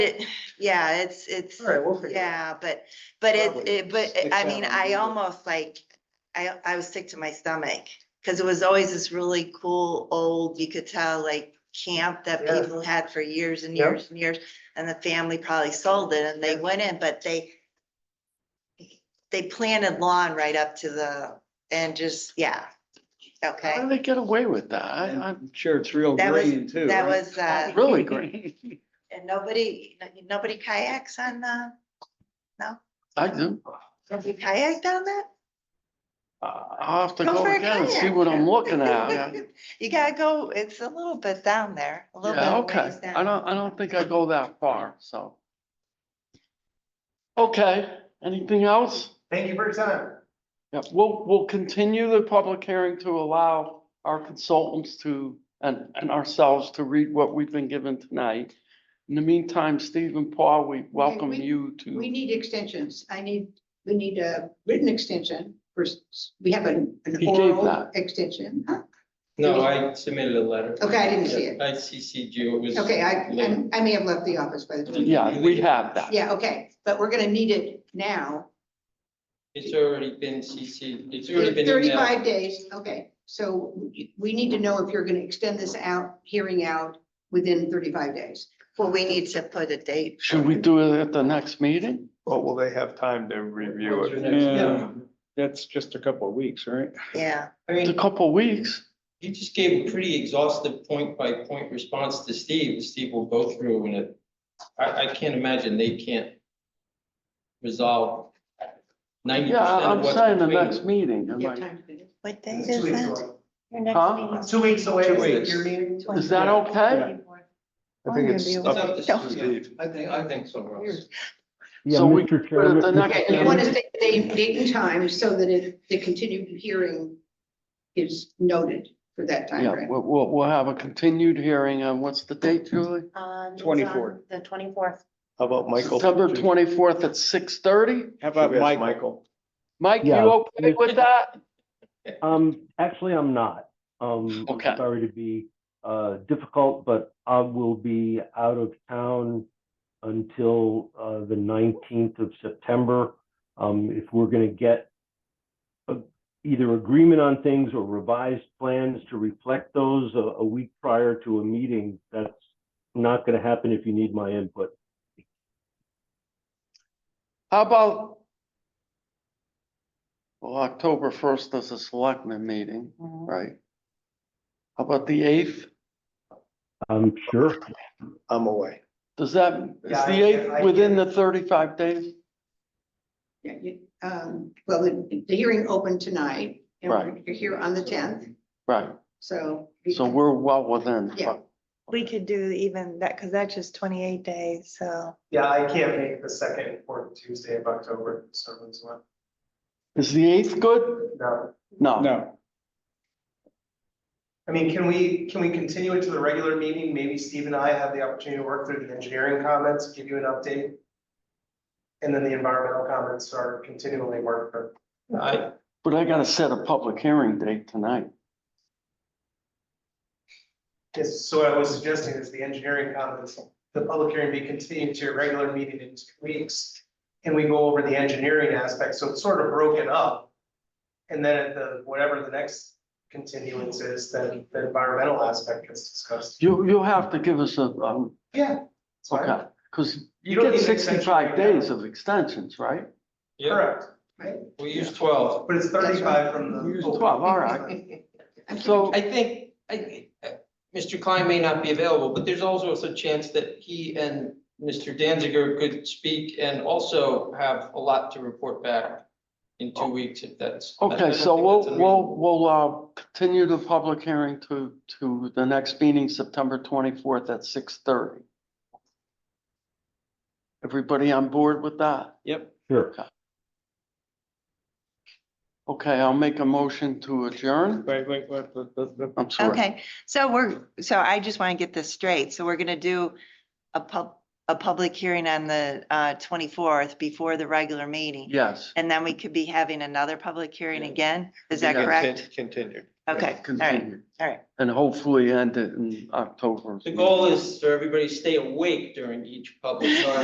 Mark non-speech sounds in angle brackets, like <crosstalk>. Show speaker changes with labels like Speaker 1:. Speaker 1: It, yeah, it's, it's,
Speaker 2: All right, we'll figure it out.
Speaker 1: yeah, but, but it,
Speaker 2: Probably.
Speaker 1: it, but
Speaker 2: Stick
Speaker 1: I
Speaker 2: that
Speaker 1: mean,
Speaker 2: one
Speaker 1: I
Speaker 2: in.
Speaker 1: almost like, I, I was sick to my stomach. Cause it was always this really cool, old, you could tell like camp that
Speaker 2: Yeah.
Speaker 1: people had for years and
Speaker 2: Yep.
Speaker 1: years and years. And the family probably sold it and they
Speaker 2: Yeah.
Speaker 1: went in, but they, they planted lawn right up to the, and just, yeah.
Speaker 3: How
Speaker 1: Okay,
Speaker 3: do they get away with that? I, I'm sure it's real
Speaker 1: That was-
Speaker 3: green too.
Speaker 1: that
Speaker 3: right?
Speaker 1: was, uh,
Speaker 3: Really green.
Speaker 1: and nobody, nobody kayaks on the,
Speaker 3: I do.
Speaker 1: you kayak down that?
Speaker 3: I'll have to
Speaker 1: Uh, Go
Speaker 3: go
Speaker 1: for a
Speaker 3: again and see
Speaker 1: kayak.
Speaker 3: what I'm
Speaker 1: <laughs>
Speaker 3: looking at.
Speaker 1: You gotta go, it's a little bit down there, a little bit.
Speaker 3: Yeah,
Speaker 1: of
Speaker 3: okay.
Speaker 1: ways
Speaker 3: I
Speaker 1: down.
Speaker 3: don't, I don't think I go that far, so. Okay, anything else?
Speaker 2: Thank you for your time.
Speaker 3: Yeah, we'll, we'll continue the public hearing to allow our consultants to, and, and ourselves to read what we've been given tonight. In the meantime, Steve and Paul, we welcome
Speaker 4: we-
Speaker 3: you to.
Speaker 4: We need extensions. I need, we need a written extension for, s- we have an an
Speaker 3: He gave
Speaker 4: oral
Speaker 3: that.
Speaker 4: extension. Huh?
Speaker 5: No, I submitted a letter.
Speaker 4: Okay, I didn't see it.
Speaker 5: I CC'd you, it was.
Speaker 4: Okay, I,
Speaker 5: late.
Speaker 4: I'm- I may have left the office by the time.
Speaker 3: Yeah, we have that.
Speaker 4: Yeah, okay, but we're gonna need it now.
Speaker 5: It's already been CC'd, it's already been. emailed.
Speaker 4: Thirty-five days, okay. So we- we need to know if you're gonna extend this out, hearing out within thirty-five days.
Speaker 1: Well, we need to put a date.
Speaker 3: Should we do it at the next meeting?
Speaker 6: Well, will they have time to review
Speaker 5: What's your
Speaker 6: it?
Speaker 5: next-
Speaker 3: Yeah.
Speaker 6: That's just a couple of weeks, right?
Speaker 1: Yeah,
Speaker 5: I
Speaker 3: It's a
Speaker 5: mean,
Speaker 3: couple of weeks.
Speaker 5: you just gave a pretty exhaustive point by point response to Steve, Steve will go through and it, I, I can't imagine they can't resolve ninety
Speaker 3: Yeah,
Speaker 5: percent
Speaker 3: I-
Speaker 5: of
Speaker 3: I'm
Speaker 5: what's.
Speaker 3: saying the
Speaker 5: between
Speaker 3: next meeting. am
Speaker 4: You
Speaker 3: I-
Speaker 4: have time to finish.
Speaker 1: what date
Speaker 2: It's
Speaker 1: is
Speaker 2: two weeks
Speaker 1: that?
Speaker 2: away.
Speaker 7: Your next
Speaker 3: Huh?
Speaker 7: meeting
Speaker 2: It's
Speaker 7: is
Speaker 2: Two weeks away
Speaker 5: Two
Speaker 2: is
Speaker 5: weeks.
Speaker 2: your meeting.
Speaker 3: Is that okay?
Speaker 6: I think it's
Speaker 5: It's up to
Speaker 6: up
Speaker 5: Steve.
Speaker 6: to Steve.
Speaker 5: I think, I think so, Ross.
Speaker 8: Yeah,
Speaker 3: So we
Speaker 8: Mr.
Speaker 3: But at the
Speaker 8: Chairman,
Speaker 3: next
Speaker 4: Okay, you want
Speaker 3: meeting,
Speaker 4: to say date, date and time so that it, the continued hearing is noted for that time
Speaker 3: yeah,
Speaker 4: frame.
Speaker 3: we'll, we'll, we'll have a continued hearing on, what's the date, Julie?
Speaker 7: on- it's on
Speaker 6: 24th.
Speaker 7: The twenty-fourth.
Speaker 6: How about Michael?
Speaker 3: September twenty-fourth at six thirty?
Speaker 6: How about Michael?
Speaker 3: Mike, you
Speaker 8: Yeah.
Speaker 3: okay with that?
Speaker 8: um, actually, I'm not. Um, I'm
Speaker 3: Okay.
Speaker 8: sorry to be, uh, difficult, but I will be out of town until, uh, the nineteenth of September. Um, if we're gonna get a- either agreement on things or revised plans to reflect those a, a week prior to a meeting, that's not gonna happen if you need my input.
Speaker 3: How about? Well, October first is a selectmen meeting, right? How about the eighth?
Speaker 8: I'm Um, sure.
Speaker 6: I'm away.
Speaker 3: Does that, is
Speaker 2: Yeah, I-
Speaker 3: the
Speaker 2: I- I
Speaker 3: eighth within
Speaker 2: can't-
Speaker 3: the thirty-five days?
Speaker 4: Yeah, you- um, Well, the, the hearing opened tonight. and
Speaker 3: Right.
Speaker 4: You're here on the tenth,
Speaker 3: Right,
Speaker 4: so.
Speaker 3: so we're well within.
Speaker 4: Yeah.
Speaker 7: We could do even that, because that's just twenty-eight days, so.
Speaker 2: Yeah, I can't make the second and fourth Tuesday of October, so it's not,
Speaker 3: Is the eighth good?
Speaker 2: no.
Speaker 3: No,
Speaker 6: No.
Speaker 2: I mean, can we, can we continue it to the regular meeting? Maybe Steve and I have the opportunity to work through the engineering comments, give you an update. And then the environmental comments are continually worked for.
Speaker 5: I,
Speaker 3: but I gotta set a public hearing date tonight.
Speaker 2: Yes, so what I was suggesting is the engineering comments, the public hearing be continued to your regular meeting in two weeks. And we go over the engineering aspect, so it's sort of broken up. And then at the, whatever the next continuance is, then the environmental aspect is discussed.
Speaker 3: You, you'll have to give us a, um,
Speaker 2: Yeah. it's fine.
Speaker 3: okay, cause
Speaker 2: You
Speaker 3: you
Speaker 2: don't
Speaker 3: get
Speaker 2: need an extension
Speaker 3: sixty-five
Speaker 2: right
Speaker 3: days
Speaker 2: now.
Speaker 3: of extensions, right?
Speaker 5: yeah,
Speaker 2: Correct,
Speaker 5: we use twelve.
Speaker 2: but it's thirty-five from the.
Speaker 3: We use 12, all right.
Speaker 4: I'm
Speaker 3: So,
Speaker 5: I think, I, uh, Mr. Klein may not be available, but there's also a chance that he and Mr. Danziger could speak and also have a lot to report back in two weeks if that's. I
Speaker 3: okay,
Speaker 5: don't
Speaker 3: so
Speaker 5: think
Speaker 3: we'll,
Speaker 5: that's
Speaker 3: we'll,
Speaker 5: unreasonable.
Speaker 3: we'll, uh, continue the public hearing to, to the next meeting, September twenty-fourth at six thirty. Everybody on board with that?
Speaker 8: Sure.
Speaker 3: Okay, I'll make a motion to adjourn.
Speaker 6: Wait, wait, wait, the- the- the-
Speaker 3: I'm sorry.
Speaker 1: Okay, so we're, so I just want to get this straight. So we're gonna do a pub, a public hearing on the uh twenty-fourth before the regular meeting.
Speaker 3: Yes.
Speaker 1: And then we could be having another public hearing
Speaker 5: Yeah.
Speaker 1: again? Is that
Speaker 3: Yeah.
Speaker 1: correct?
Speaker 6: Continued.
Speaker 1: Okay, all right,
Speaker 3: Continue.
Speaker 1: all right.
Speaker 3: And hopefully end it in October.
Speaker 5: The goal is for everybody to stay awake during each public hearing.